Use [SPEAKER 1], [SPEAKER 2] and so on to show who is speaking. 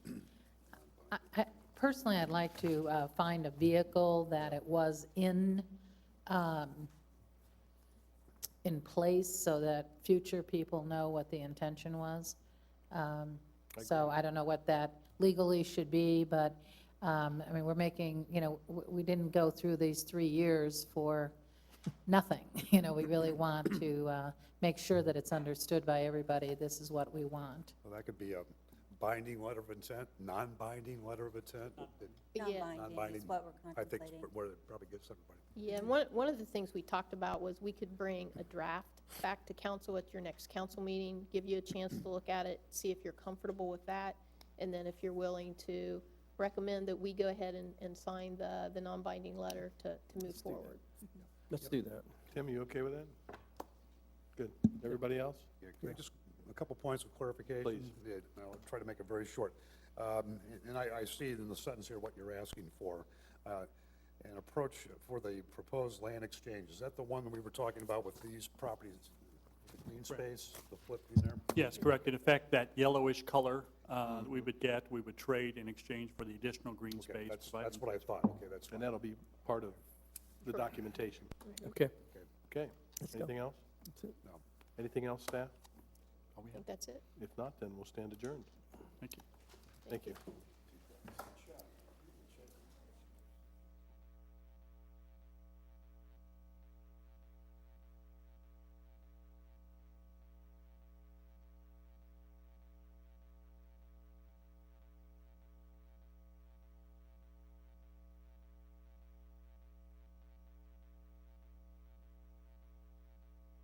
[SPEAKER 1] I- I- Personally, I'd like to uh, find a vehicle that it was in, um, in place so that future people know what the intention was. Um, So I don't know what that legally should be, but, um, I mean, we're making, you know, w- we didn't go through these three years for nothing. You know, we really want to uh, make sure that it's understood by everybody, this is what we want.
[SPEAKER 2] Well, that could be a binding letter of intent, non-binding letter of intent.
[SPEAKER 3] Yeah,
[SPEAKER 2] Non-binding
[SPEAKER 3] Non-binding is what we're
[SPEAKER 2] I think
[SPEAKER 3] contemplating.
[SPEAKER 2] it's where it probably gives everybody.
[SPEAKER 4] yeah, and one, one of the things we talked about was we could bring a draft back to council at your next council meeting, give you a chance to look at it, see if you're comfortable with that, and then if you're willing to recommend that we go ahead and, and sign the, the non-binding letter to, to move forward.
[SPEAKER 5] Let's do that.
[SPEAKER 6] Tim, you okay with that? Good. Everybody else?
[SPEAKER 2] Yeah, can I Just a couple points of clarification.
[SPEAKER 6] Please.
[SPEAKER 2] Yeah, and I'll try to make it very short. Um, And I, I see in the sentence here what you're asking for. Uh, An approach for the proposed land exchange, is that the one that we were talking about with these properties? the Green space, the flip in there?
[SPEAKER 7] Yes, correct. In effect, that yellowish color uh, that we would get, we would trade in exchange for the additional green
[SPEAKER 2] Okay,
[SPEAKER 7] space.
[SPEAKER 2] that's,
[SPEAKER 7] provided-
[SPEAKER 2] that's what I thought, okay, that's
[SPEAKER 6] And
[SPEAKER 2] fine.
[SPEAKER 6] that'll be part of the documentation.
[SPEAKER 5] Okay.
[SPEAKER 6] Okay.
[SPEAKER 5] Let's go.
[SPEAKER 6] Anything else?
[SPEAKER 5] That's it.
[SPEAKER 2] No.
[SPEAKER 6] Anything else, staff?
[SPEAKER 4] I think that's it.
[SPEAKER 6] If not, then we'll stand adjourned.
[SPEAKER 7] Thank you.
[SPEAKER 6] Thank you.